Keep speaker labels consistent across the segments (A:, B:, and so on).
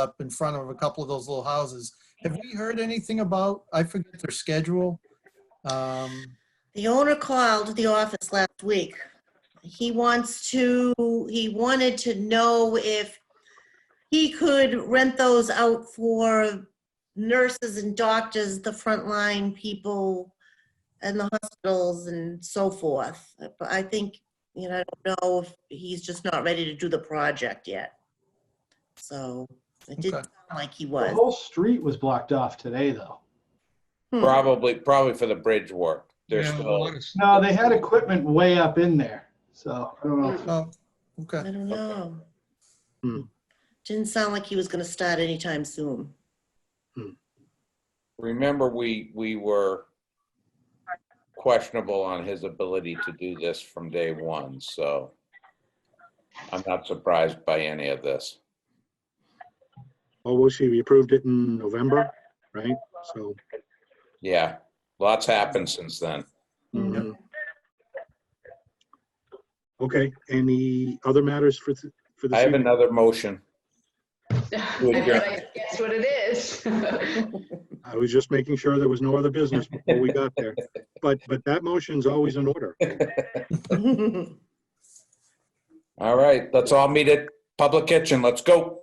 A: up in front of a couple of those little houses. Have we heard anything about, I forget their schedule? Um,
B: The owner called the office last week. He wants to, he wanted to know if he could rent those out for nurses and doctors, the frontline people and the hospitals and so forth. But I think, you know, I don't know if he's just not ready to do the project yet. So it didn't
A: Okay.
B: sound like he
C: The
B: was.
C: whole street was blocked off today, though.
B: Hmm.
D: Probably, probably for the bridge work. There's
E: Yeah, a
D: still,
E: lot of s-
C: No, they had equipment way up in there, so I don't know. if-
A: oh,
B: I
A: okay,
B: don't know.
F: Hmm.
B: Didn't sound like he was gonna start anytime soon.
D: remember, we, we were questionable on his ability to do this from day one, so I'm not surprised by any of this.
F: Oh, we'll see. We approved it in November, right? So,
D: Yeah, lots happened since then.
G: Mm-hmm.
F: mhm. okay, any other matters for, th- for
D: I
F: this
D: have
F: evening?
D: another motion.
G: I bet I guess what it is.
F: Uh, I was just making sure there was no other business before we got there. But, but that motion's always in order. Uh,
D: All right, let's all meet at Public Kitchen. Let's go.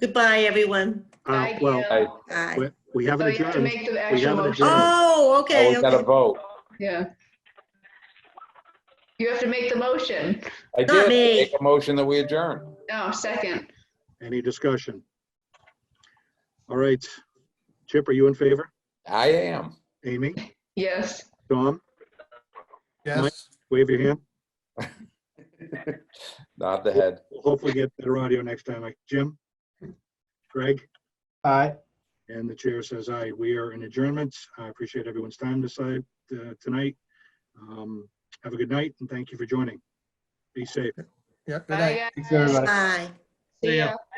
B: Goodbye, everyone.
F: Uh,
G: Thank
F: Well,
G: you.
B: Bye.
F: we- we haven't
G: So you have to
F: adjourned.
G: make the
F: We
G: actual
F: haven't
G: motion.
F: adjourned.
B: Oh,
D: Oh,
B: okay,
D: we got to
B: okay.
D: vote.
G: Yeah. You have to make the motion.
D: I
B: Not
D: did
B: me.
D: make a motion that we adjourn.
G: No, second.
F: Any discussion? All right. Chip, are you in favor?
D: I am.
F: Amy?
G: Yes.
F: Tom?
A: yes.
F: Wave your hand.
D: Nod the head.
F: We'll hopefully get better audio next time. Jim? Greg?
C: Aye.
F: And the chair says aye. We are in adjournment. I appreciate everyone's time this, uh, tonight. Um, Have a good night and thank you for joining. Be safe.
A: Yeah, good night.
G: Bye,
C: Thanks,
G: guys.
C: everybody.
B: Bye.
G: See
E: Yeah.
G: ya.